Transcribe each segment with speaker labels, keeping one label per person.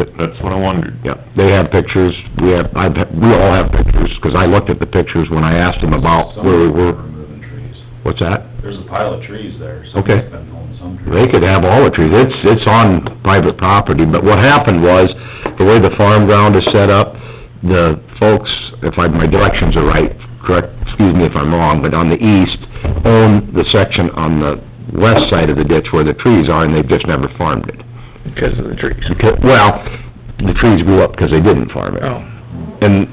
Speaker 1: that's what I wondered.
Speaker 2: Yeah, they have pictures, we have, I've, we all have pictures, 'cause I looked at the pictures when I asked them about
Speaker 3: Some
Speaker 2: where we
Speaker 3: of them
Speaker 2: were.
Speaker 3: are Removing trees.
Speaker 2: What's that?
Speaker 3: There's a pile of trees there, so
Speaker 2: Okay.
Speaker 3: they've been holding some trees.
Speaker 2: They could have all the trees, it's, it's on private property, but what happened was, the way the farm ground is set up, the folks, if I, my directions are right, correct, excuse me if I'm wrong, but on the east, own the section on the west side of the ditch where the trees are, and they've just never farmed it.
Speaker 4: because of the trees.
Speaker 2: Because- Well, the trees grew up because they didn't farm it,
Speaker 4: Oh,
Speaker 2: and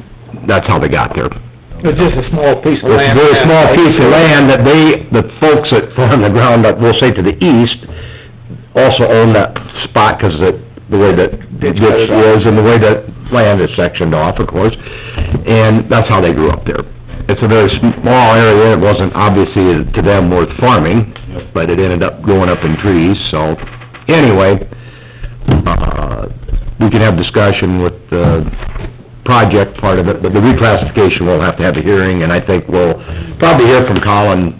Speaker 2: that's how they got there.
Speaker 4: it's just a small piece of
Speaker 2: It's a
Speaker 4: land.
Speaker 2: very small piece of land that they, the folks that farm the ground up, we'll say to the east, also own that spot, 'cause the, the way that
Speaker 4: Ditch
Speaker 2: ditch
Speaker 4: cut it off.
Speaker 2: is, and the way that land is sectioned off, of course, and that's how they grew up there. It's a very small area, it wasn't obviously to them worth farming,
Speaker 3: Yep.
Speaker 2: but it ended up growing up in trees, so, anyway, uh, we can have discussion with uh, the project part of it, but the reclassification, we'll have to have a hearing, and I think we'll probably hear from Colin,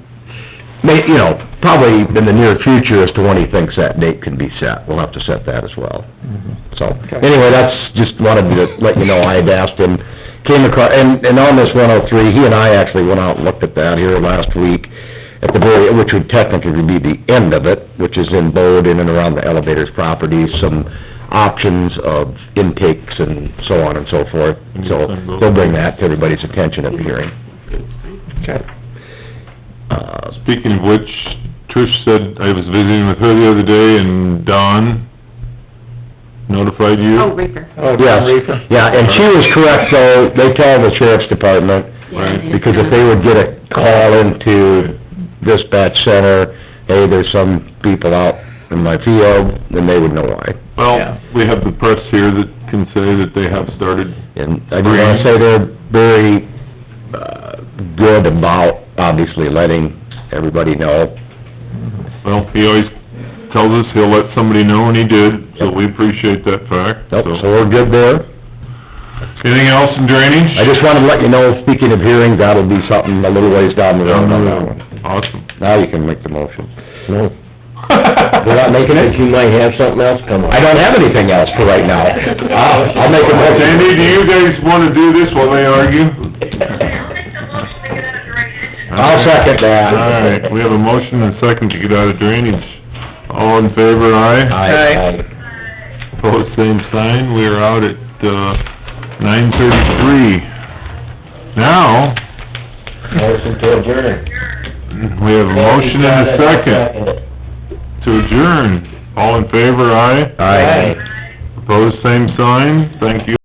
Speaker 2: may, you know, probably in the near future as to when he thinks that date can be set. We'll have to set that as well.
Speaker 1: Mm-hmm.
Speaker 2: So, anyway, that's, just wanted to let you know, I had asked him, came across, and, and on this one oh three, he and I actually went out and looked at that here last week, at the very, which would technically be the end of it, which is in Bode, in and around the elevator's property, some options of intakes and so on and so forth. So, they'll bring that to everybody's attention at the hearing.
Speaker 4: Okay.
Speaker 2: Uh,
Speaker 1: Speaking of which, Trish said, I was visiting with her the other day, and Don notified you.
Speaker 5: Oh, reefer.
Speaker 4: Oh,
Speaker 2: Yes,
Speaker 4: John Reefer?
Speaker 2: yeah, and she was correct, though, they tell the sheriff's department,
Speaker 1: Right,
Speaker 2: because if they would get a call into dispatch center, hey, there's some people out in my field, then they would know why.
Speaker 1: Well,
Speaker 4: Yeah.
Speaker 1: we have the press here that can say that they have started,
Speaker 2: And I do wanna say they're very, uh, good about, obviously, letting everybody know.
Speaker 1: well, he always tells us he'll let somebody know, and he did, so we appreciate that fact,
Speaker 2: Nope, so
Speaker 1: so.
Speaker 2: we're good there.
Speaker 1: Anything else in drainage?
Speaker 2: I just wanted to let you know, speaking of hearings, that'll be something a little ways down the road on that one.
Speaker 1: Awesome.
Speaker 2: Now you can make the motion. No. We're
Speaker 1: We're
Speaker 2: not making it? You might have something else come up. I don't have anything else for right now. I'll, I'll make a motion.
Speaker 1: Sandy, do you guys wanna do this while they argue?
Speaker 2: I'll second that.
Speaker 1: All right, we have a motion and a second to get out of drainage. All in favor, aye?
Speaker 2: Aye.
Speaker 1: Opposed, same sign. We are out at, uh, nine thirty-three. Now,
Speaker 2: Motion to adjourn.
Speaker 1: we have a motion and a second to adjourn. All in favor, aye?
Speaker 2: Aye.
Speaker 1: Opposed, same sign. Thank you.